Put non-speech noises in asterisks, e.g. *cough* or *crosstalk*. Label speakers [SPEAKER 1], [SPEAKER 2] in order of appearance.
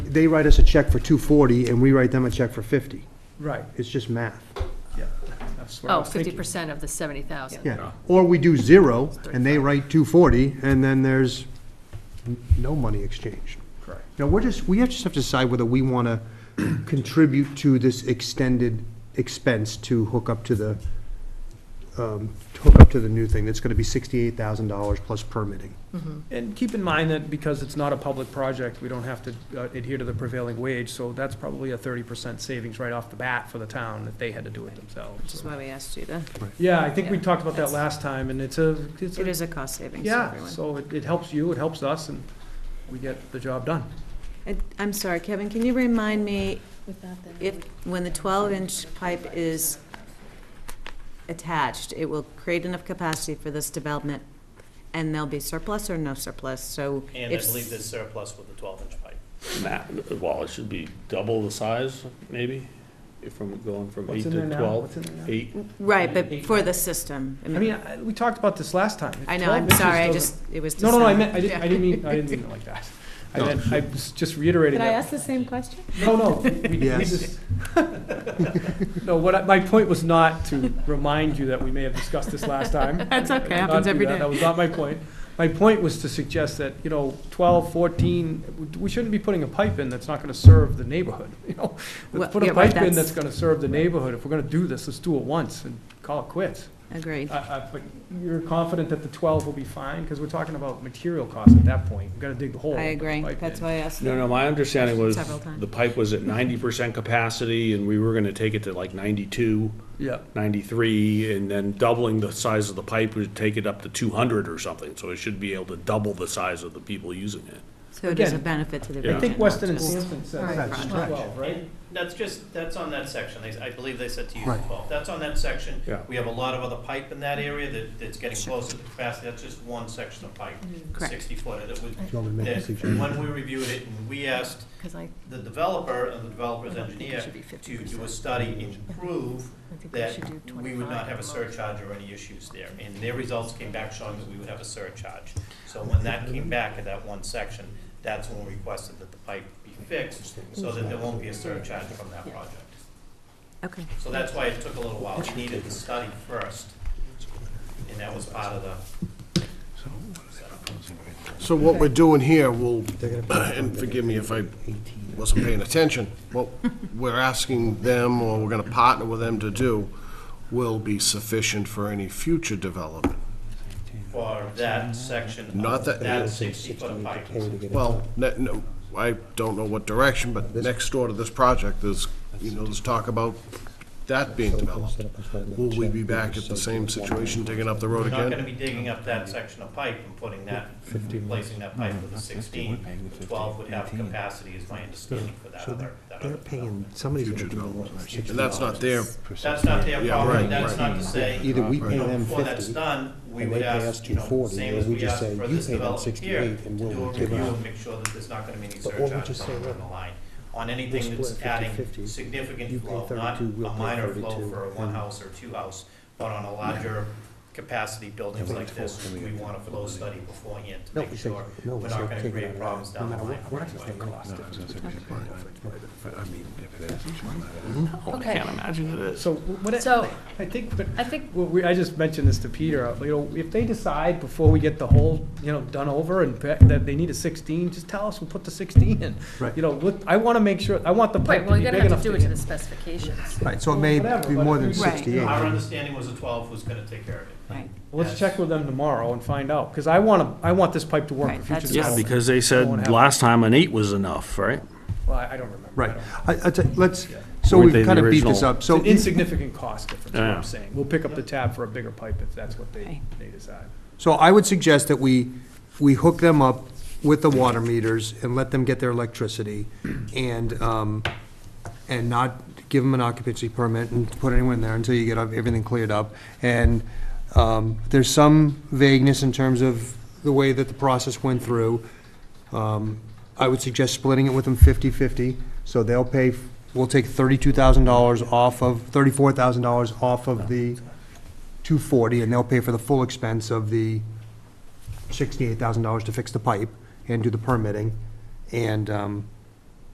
[SPEAKER 1] they write us a check for two forty, and we write them a check for fifty.
[SPEAKER 2] Right,
[SPEAKER 1] It's just math.
[SPEAKER 2] yeah, that's what I
[SPEAKER 3] Oh,
[SPEAKER 2] was
[SPEAKER 3] fifty
[SPEAKER 2] thinking.
[SPEAKER 3] percent of the seventy thousand.
[SPEAKER 1] Yeah, or we do zero, and they write two forty, and then there's n- no money exchanged.
[SPEAKER 2] Correct.
[SPEAKER 1] Now, we're just, we have- just have to decide whether we want to *clears throat* contribute to this extended expense to hook up to the, um, to hook up to the new thing, that's going to be sixty-eight thousand dollars plus permitting.
[SPEAKER 2] And keep in mind that because it's not a public project, we don't have to uh, adhere to the prevailing wage, so that's probably a thirty percent savings right off the bat for the town if they had to do it
[SPEAKER 4] Which is
[SPEAKER 2] themselves.
[SPEAKER 4] why we asked you to,
[SPEAKER 2] Yeah, I think we
[SPEAKER 4] Yeah,
[SPEAKER 2] talked about that
[SPEAKER 4] that's-
[SPEAKER 2] last time, and it's a, it's
[SPEAKER 4] it
[SPEAKER 2] a,
[SPEAKER 4] is a cost savings to
[SPEAKER 2] yeah,
[SPEAKER 4] everyone.
[SPEAKER 2] so it, it helps you, it helps us, and we get the job done.
[SPEAKER 4] And I'm sorry, Kevin, can you remind me if, when the twelve inch pipe is attached, it will create enough capacity for this development and there'll be surplus or no surplus, so
[SPEAKER 5] And I
[SPEAKER 4] if-
[SPEAKER 5] believe there's surplus with the twelve-inch pipe.
[SPEAKER 6] Ma- well, it should be double the size, maybe, if I'm going from eight to twelve.
[SPEAKER 2] in there now?
[SPEAKER 6] Eight,
[SPEAKER 4] Right, but for the system.
[SPEAKER 2] I mean, I- we talked about this last time.
[SPEAKER 4] I know,
[SPEAKER 2] 12
[SPEAKER 4] I'm
[SPEAKER 2] inches
[SPEAKER 4] sorry, I
[SPEAKER 2] doesn't-
[SPEAKER 4] just, it was.
[SPEAKER 2] No, no, no, I meant, I
[SPEAKER 4] *laughs* decided.
[SPEAKER 2] didn't, I didn't mean, I didn't mean it like that. I meant, I
[SPEAKER 6] *laughs*
[SPEAKER 2] was just reiterating that.
[SPEAKER 4] the same question?
[SPEAKER 2] No, no, we- we
[SPEAKER 1] Yes.
[SPEAKER 2] just, *laughs* no, what, I- my point was not to remind you that we may have discussed this last time.
[SPEAKER 4] That's *laughs* okay,
[SPEAKER 2] I did not
[SPEAKER 4] happens
[SPEAKER 2] do
[SPEAKER 4] every
[SPEAKER 2] that.
[SPEAKER 4] day.
[SPEAKER 2] That was not my point. My point was to suggest that, you know, 12, 14, we- we shouldn't be putting a pipe in that's not gonna serve the neighborhood, *laughs* you know?
[SPEAKER 4] Well,
[SPEAKER 2] Let's put
[SPEAKER 4] yeah,
[SPEAKER 2] a
[SPEAKER 4] right,
[SPEAKER 2] pipe in that's
[SPEAKER 4] that's-
[SPEAKER 2] gonna serve the neighborhood. If we're gonna do this, let's do it once and call it quits.
[SPEAKER 4] Agreed.
[SPEAKER 2] Uh, uh, But you're confident that the 12 will be fine? Because we're talking about material costs at that point. We've got to dig the hole.
[SPEAKER 4] I
[SPEAKER 2] and put the
[SPEAKER 4] agree,
[SPEAKER 2] pipe
[SPEAKER 4] that's
[SPEAKER 2] in.
[SPEAKER 4] why I asked.
[SPEAKER 6] no, no, my understanding was
[SPEAKER 4] Several times.
[SPEAKER 6] the pipe was at ninety percent capacity and we were gonna take it to like ninety-two,
[SPEAKER 2] Yeah,
[SPEAKER 6] ninety-three, and then doubling the size of the pipe would take it up to two hundred or something, so it should be able to double the size of the people using it.
[SPEAKER 4] So it is a
[SPEAKER 2] Again,
[SPEAKER 4] benefit to the
[SPEAKER 6] Yeah.
[SPEAKER 4] region.
[SPEAKER 2] I think Weston and
[SPEAKER 4] not just-
[SPEAKER 2] Sampson said
[SPEAKER 1] Right.
[SPEAKER 2] it's
[SPEAKER 1] Right.
[SPEAKER 2] 12, right?
[SPEAKER 5] And that's just, that's on that section. They- I believe they said to use
[SPEAKER 1] Right.
[SPEAKER 5] twelve. That's on that section.
[SPEAKER 6] Yeah.
[SPEAKER 5] We have a lot of other pipe in that area that, that's getting closer to capacity. That's just one section of pipe,
[SPEAKER 4] Correct.
[SPEAKER 5] sixty footer that was,
[SPEAKER 1] Do you want me to make a
[SPEAKER 5] that,
[SPEAKER 1] suggestion?
[SPEAKER 5] when we reviewed it, and we asked
[SPEAKER 3] Cause I,
[SPEAKER 5] the developer and the
[SPEAKER 3] I
[SPEAKER 5] developer's
[SPEAKER 3] don't think
[SPEAKER 5] engineer
[SPEAKER 3] it should be fifty
[SPEAKER 5] to do a
[SPEAKER 3] percent.
[SPEAKER 5] study and prove
[SPEAKER 3] I think we
[SPEAKER 5] that
[SPEAKER 3] should do twenty-five.
[SPEAKER 5] we would not have a surcharge or any issues there. And their results came back showing that we would have a surcharge. So when that came back at that one section, that's when we requested that the pipe be fixed, so that there won't be a surcharge from that project.
[SPEAKER 4] Okay,
[SPEAKER 5] So that's why it took a little while. We needed the study first, and that was part of the
[SPEAKER 7] So what we're doing here will, *clears throat* and forgive me if I wasn't paying attention, what we're asking them, or we're gonna partner with them to do, will be sufficient for any future development.
[SPEAKER 5] for that section
[SPEAKER 7] Not
[SPEAKER 5] of
[SPEAKER 7] that-
[SPEAKER 5] that sixty-foot pipe.
[SPEAKER 7] Well, ne- no, I don't know what direction, but next door to this project, there's, you know, there's talk about that being developed. Will we be back at the same situation, digging up the road
[SPEAKER 5] We're not gonna
[SPEAKER 7] again?
[SPEAKER 5] be digging up that section of pipe and putting that, replacing that pipe with a sixteen. The Twelve would have capacity, is my understanding for that other, that other. development.
[SPEAKER 1] somebody's
[SPEAKER 7] Future development. And that's not their,
[SPEAKER 5] That's not their
[SPEAKER 7] Yeah,
[SPEAKER 5] problem,
[SPEAKER 7] right,
[SPEAKER 5] that's
[SPEAKER 7] right.
[SPEAKER 5] not to say, you
[SPEAKER 1] Either we pay
[SPEAKER 5] know,
[SPEAKER 1] them
[SPEAKER 5] before that's
[SPEAKER 1] fifty,
[SPEAKER 5] done, we
[SPEAKER 1] and
[SPEAKER 5] would
[SPEAKER 1] they pay us
[SPEAKER 5] ask, you know,
[SPEAKER 1] 240,
[SPEAKER 5] same
[SPEAKER 1] or
[SPEAKER 5] as
[SPEAKER 1] we
[SPEAKER 5] we
[SPEAKER 1] just
[SPEAKER 5] asked
[SPEAKER 1] say,
[SPEAKER 5] for
[SPEAKER 1] "You
[SPEAKER 5] this
[SPEAKER 1] pay them
[SPEAKER 5] development here,
[SPEAKER 1] 68
[SPEAKER 5] to
[SPEAKER 1] and
[SPEAKER 5] do
[SPEAKER 1] we'll
[SPEAKER 5] a
[SPEAKER 1] give
[SPEAKER 5] review
[SPEAKER 1] out."
[SPEAKER 5] and make sure that there's not gonna be any
[SPEAKER 1] But won't we
[SPEAKER 5] surcharge
[SPEAKER 1] just say,
[SPEAKER 5] somewhere
[SPEAKER 1] "Look,
[SPEAKER 5] along the line. On anything
[SPEAKER 1] split
[SPEAKER 5] that's
[SPEAKER 1] it
[SPEAKER 5] adding
[SPEAKER 1] 50-50, you
[SPEAKER 5] significant
[SPEAKER 1] pay
[SPEAKER 5] flow,
[SPEAKER 1] 32,
[SPEAKER 5] not a
[SPEAKER 1] we'll pay
[SPEAKER 5] minor flow
[SPEAKER 1] 32,
[SPEAKER 5] for a one
[SPEAKER 1] and-
[SPEAKER 5] house or two house, but on a larger capacity buildings like this, we want a flow study beforehand to
[SPEAKER 1] No,
[SPEAKER 5] make
[SPEAKER 1] we say-
[SPEAKER 5] sure
[SPEAKER 1] no,
[SPEAKER 5] we're
[SPEAKER 1] we
[SPEAKER 5] not
[SPEAKER 1] say
[SPEAKER 5] gonna
[SPEAKER 1] take it
[SPEAKER 5] create
[SPEAKER 1] out.
[SPEAKER 5] problems
[SPEAKER 1] No
[SPEAKER 5] down the
[SPEAKER 1] matter
[SPEAKER 5] line.
[SPEAKER 1] what-
[SPEAKER 5] on the way.
[SPEAKER 6] Oh,
[SPEAKER 3] Okay,
[SPEAKER 2] So what,
[SPEAKER 3] so
[SPEAKER 2] I- I think, but,
[SPEAKER 3] I think,
[SPEAKER 2] well, we, I just mentioned this to Peter, uh, you know, if they decide before we get the whole, you know, done over and pe- that they need a sixteen, just tell us, we'll put the sixteen in.
[SPEAKER 1] Right.
[SPEAKER 2] You know, look, I wanna make sure, I want the
[SPEAKER 3] right,
[SPEAKER 2] pipe to
[SPEAKER 3] well,
[SPEAKER 2] be
[SPEAKER 3] you're
[SPEAKER 2] big
[SPEAKER 3] gonna
[SPEAKER 2] enough
[SPEAKER 3] have to do
[SPEAKER 2] to
[SPEAKER 3] it to the
[SPEAKER 2] get.
[SPEAKER 3] specifications.
[SPEAKER 1] Right, so it may be more than
[SPEAKER 2] Right.
[SPEAKER 1] sixty-eight.
[SPEAKER 5] Our understanding was the twelve was gonna take care of it.
[SPEAKER 4] right,
[SPEAKER 2] Let's check with them tomorrow and find out, cause I wanna, I want this pipe to work
[SPEAKER 4] Right,
[SPEAKER 2] for future
[SPEAKER 4] that's-
[SPEAKER 6] Yeah,
[SPEAKER 2] development.
[SPEAKER 6] because they
[SPEAKER 2] Won't
[SPEAKER 6] said
[SPEAKER 2] happen.
[SPEAKER 6] last time an eight was enough, right?
[SPEAKER 2] Well, I I don't remember. I
[SPEAKER 1] Right,
[SPEAKER 2] don't remember.
[SPEAKER 1] I, I, tell- let's, so
[SPEAKER 6] Weren't they
[SPEAKER 1] we've
[SPEAKER 6] the
[SPEAKER 1] kind of beat this
[SPEAKER 6] original?
[SPEAKER 1] up, so.
[SPEAKER 2] It's an insignificant cost difference, is what
[SPEAKER 6] Yeah.
[SPEAKER 2] I'm saying. We'll pick up the tab for a bigger pipe if that's what they,
[SPEAKER 4] Okay.
[SPEAKER 2] they decide.
[SPEAKER 1] So I would suggest that we, we hook them up with the water meters and let them get their electricity and, um, and not give them an occupancy permit and put anyone in there until you get everything cleared up. And, um, there's some vagueness in terms of the way that the process went through. Um, I would suggest splitting it with them 50/50, so they'll pay, we'll take thirty-two thousand dollars off of, thirty-four thousand dollars off of the two forty, and they'll pay for the full expense of the sixty-eight thousand dollars to fix the pipe and do the permitting. And, um,